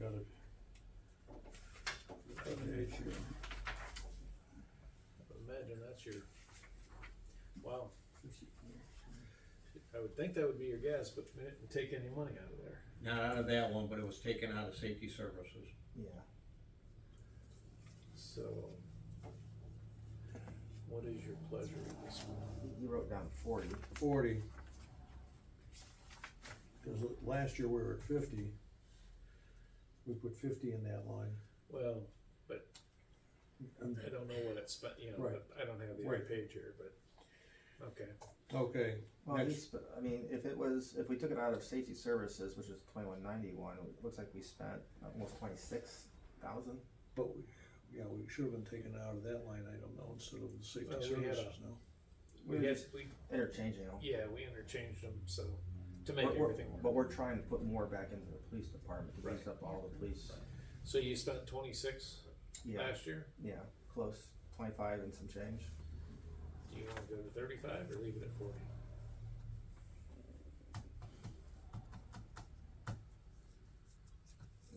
got it. Imagine that's your, wow. I would think that would be your guess, but they didn't take any money out of there. Not out of that one, but it was taken out of safety services. Yeah, So what is your pleasure with this one? he wrote down forty. Forty. Cause l- last year we were at fifty. We put fifty in that line. Well, And- I don't know what it's spent, you know, Right. but I don't have the other Right. page here, but, okay. Okay, Well, he Next. sp I mean, if it was, if we took it out of safety services, which is twenty-one ninety-one, it looks like we spent almost twenty-six thousand. but we, yeah, we should have been taken out of that line item now instead of the safety Well, we had a- services now. We had, we, Interchanging them. yeah, we interchanged them, so, to make We're- we're- everything work. But we're trying to put more back into the police department, to boost up all the police. So you spent twenty-six Yeah, last year? yeah, close, twenty-five and some change. Do you wanna go to thirty-five or leave it at forty?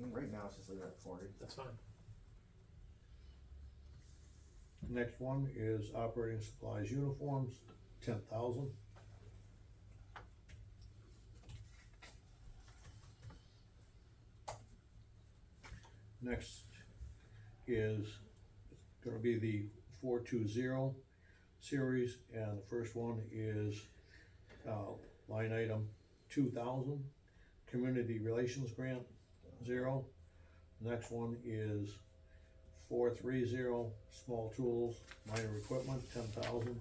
And Right now, it's just leaving it at forty. That's fine. Next one is operating supplies, uniforms, ten thousand. Next is gonna be the four two zero series, and the first one is, uh, line item two thousand, community relations grant, zero. Next one is four three zero, small tools, minor equipment, ten thousand.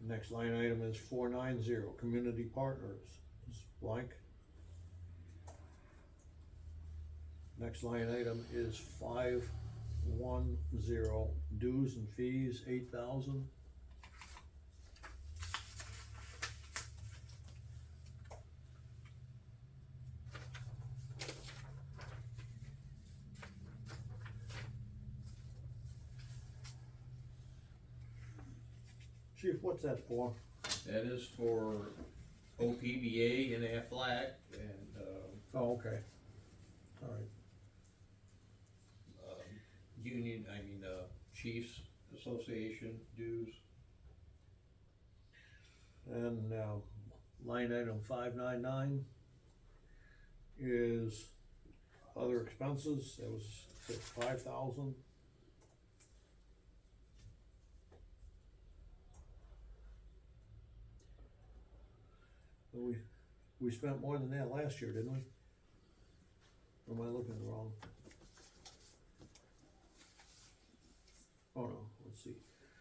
Next line item is four nine zero, community partners, is blank. Next line item is five one zero, dues and fees, eight thousand. Chief, what's that for? That is for OPBA and Aflac and, um, Oh, okay. All right. um, Union, I mean, uh, Chiefs Association dues. And now, line item five nine nine is other expenses, that was five thousand. We, we spent more than that last year, didn't we? Or am I looking wrong? Oh no, let's see.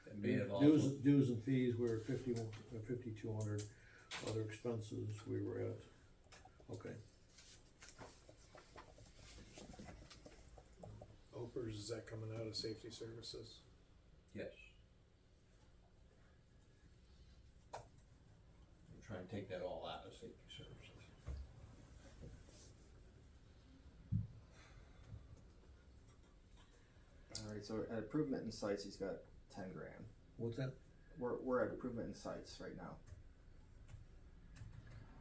That may have Dues, also, dues and fees, we were fifty-one, uh, fifty-two hundred, other expenses, we were at, okay. Opers, is that coming out of safety services? yes. I'm trying to take that all out of safety services. Alright, so at improvement in sites, he's got ten grand. What's that? We're, we're at improvement in sites right now.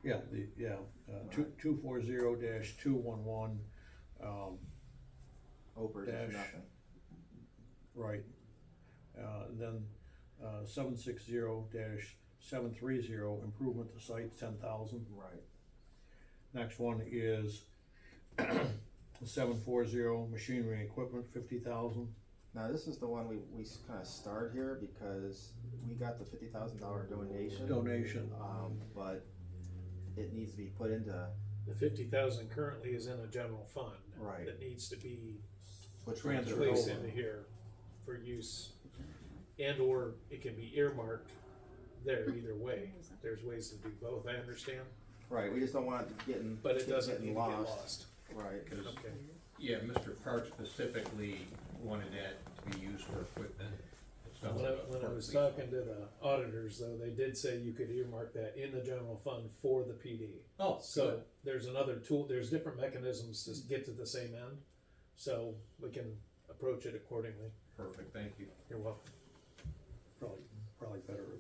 Yeah, the, yeah, uh, two, two four zero dash two one one, um, Opers is Dash. nothing. right. Uh, and then, uh, seven six zero dash seven three zero, improvement to site, ten thousand. Right. Next one is seven four zero, machinery and equipment, fifty thousand. Now, this is the one we, we kind of starred here because we got the fifty thousand dollar donation. Donation. Um, but it needs to be put into, The fifty thousand currently is in a general fund. Right. That needs to be which we took Transfer Sure. placed over. into here for use. And or it can be earmarked there either way. There's ways to do both, I understand, Right, we just don't want it getting. but it doesn't getting need to get lost. Right, Cause, Okay, yeah, Mr. Park specifically wanted that to be used for equipment. It's not when I, like a when I park was lease. talking to the auditors though, they did say you could earmark that in the general fund for the PD. Oh, So there's another tool, there's different mechanisms to get to the same end, so we can approach it accordingly. Perfect, thank you. You're welcome. Probably, probably better